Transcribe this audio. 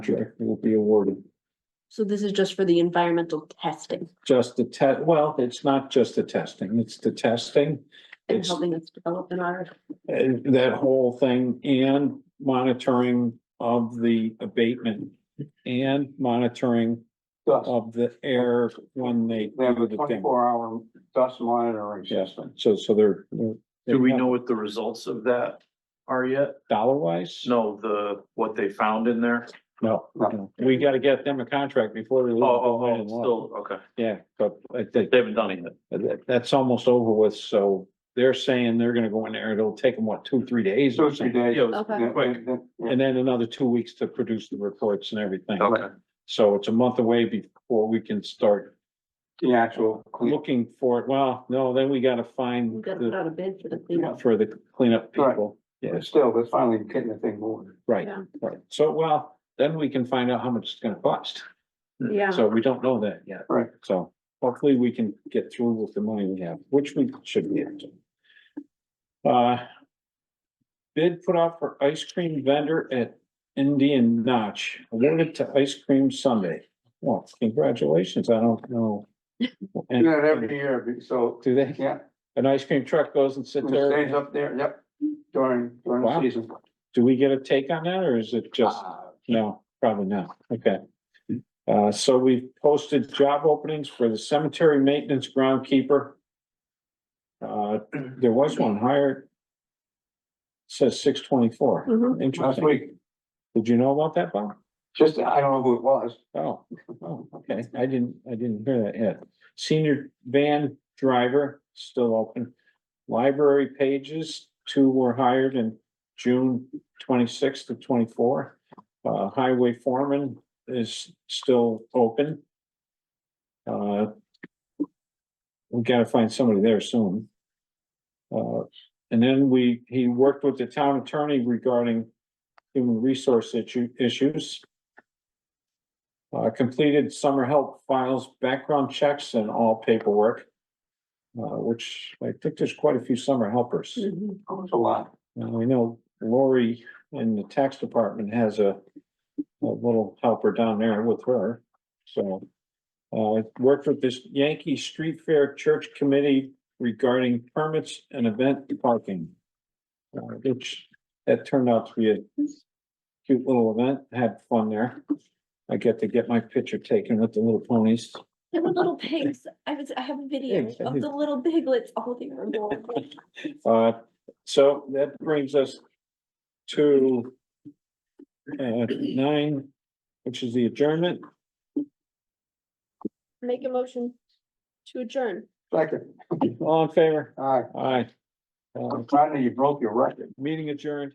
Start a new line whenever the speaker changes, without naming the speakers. contract will be awarded.
So this is just for the environmental testing
Just the test, well, it's not just the testing, it's the testing.
and
It's
helping us develop an audit.
uh, that whole thing and monitoring of the abatement and monitoring
dust.
of the air when they
They have
do Oh,
a
the thing.
twenty-four hour dust monitoring
Yes,
system.
so, so they're.
Do we know what the results of that are yet?
Dollar wise?
No, the, what they found in there?
No, no. we gotta get them a contract before they. leave.
Oh, oh, oh, still, okay.
Yeah, but I think
They haven't done it yet.
that, that's almost over with, so they're saying they're gonna go in there, it'll take them, what, two, three days?
Two,
or
or three
something?
days.
Yeah, it was
Okay.
Yeah,
quick.
yeah, yeah.
And then another two weeks to produce the reports and everything.
Okay,
So it's a month away before we can start
The actual clean.
looking for it. Well, no, then we gotta
We
find
gotta put
the,
out a bid for the cleanup.
for the cleanup
Right.
people.
But
Yes,
still, they're finally getting the thing moving.
right,
Yeah.
right. So, well, then we can find out how much it's gonna cost.
Yeah,
So we don't know that yet.
Right.
So hopefully we can get through with the money we have, which we should be able to. Uh. Bid put out for ice cream vendor at Indian Notch, awarded to Ice Cream Sunday. Well, congratulations, I don't know.
Do
And
that every year, be- so,
do they,
yeah,
an ice cream truck goes and
it
sits
stays
there,
up there, yep, during, during
Wow.
the season.
do we get a take on that, or is it just?
Ah,
No, probably not, okay. Uh, so we've posted job openings for the cemetery maintenance groundkeeper. Uh, there was one hired. Says six twenty-four,
Mhm.
Last
interesting,
week,
did you know about that, Bob?
just, I don't know who it was,
Oh, oh, okay, I didn't, I didn't hear that yet. Senior van driver, still open. Library pages, two were hired in June twenty-sixth to twenty-four. Uh, highway foreman is still open. Uh. We gotta find somebody there soon. Uh, and then we, he worked with the town attorney regarding human resource issue, issues. Uh, completed summer help files, background checks and all paperwork. Uh, which I think there's quite a few summer helpers.
Mhm.
it was a lot.
Now, I know Lori in the tax department has a, a little helper down there with her, so. Uh, I worked with this Yankee Street Fair Church Committee regarding permits and event parking. Uh, which, that turned out to be a cute little event, had fun there. I get to get my picture taken with the little ponies.
They were little pigs. I was, I have a video
Yeah,
of the little Oh, piglets holding their bowl.
Uh, so that brings us to uh, nine, which is the adjournment.
Make a motion to adjourn.
Second,
All in favor?
all right,
Aye. Uh,
finally, you broke your record.
meeting adjourned.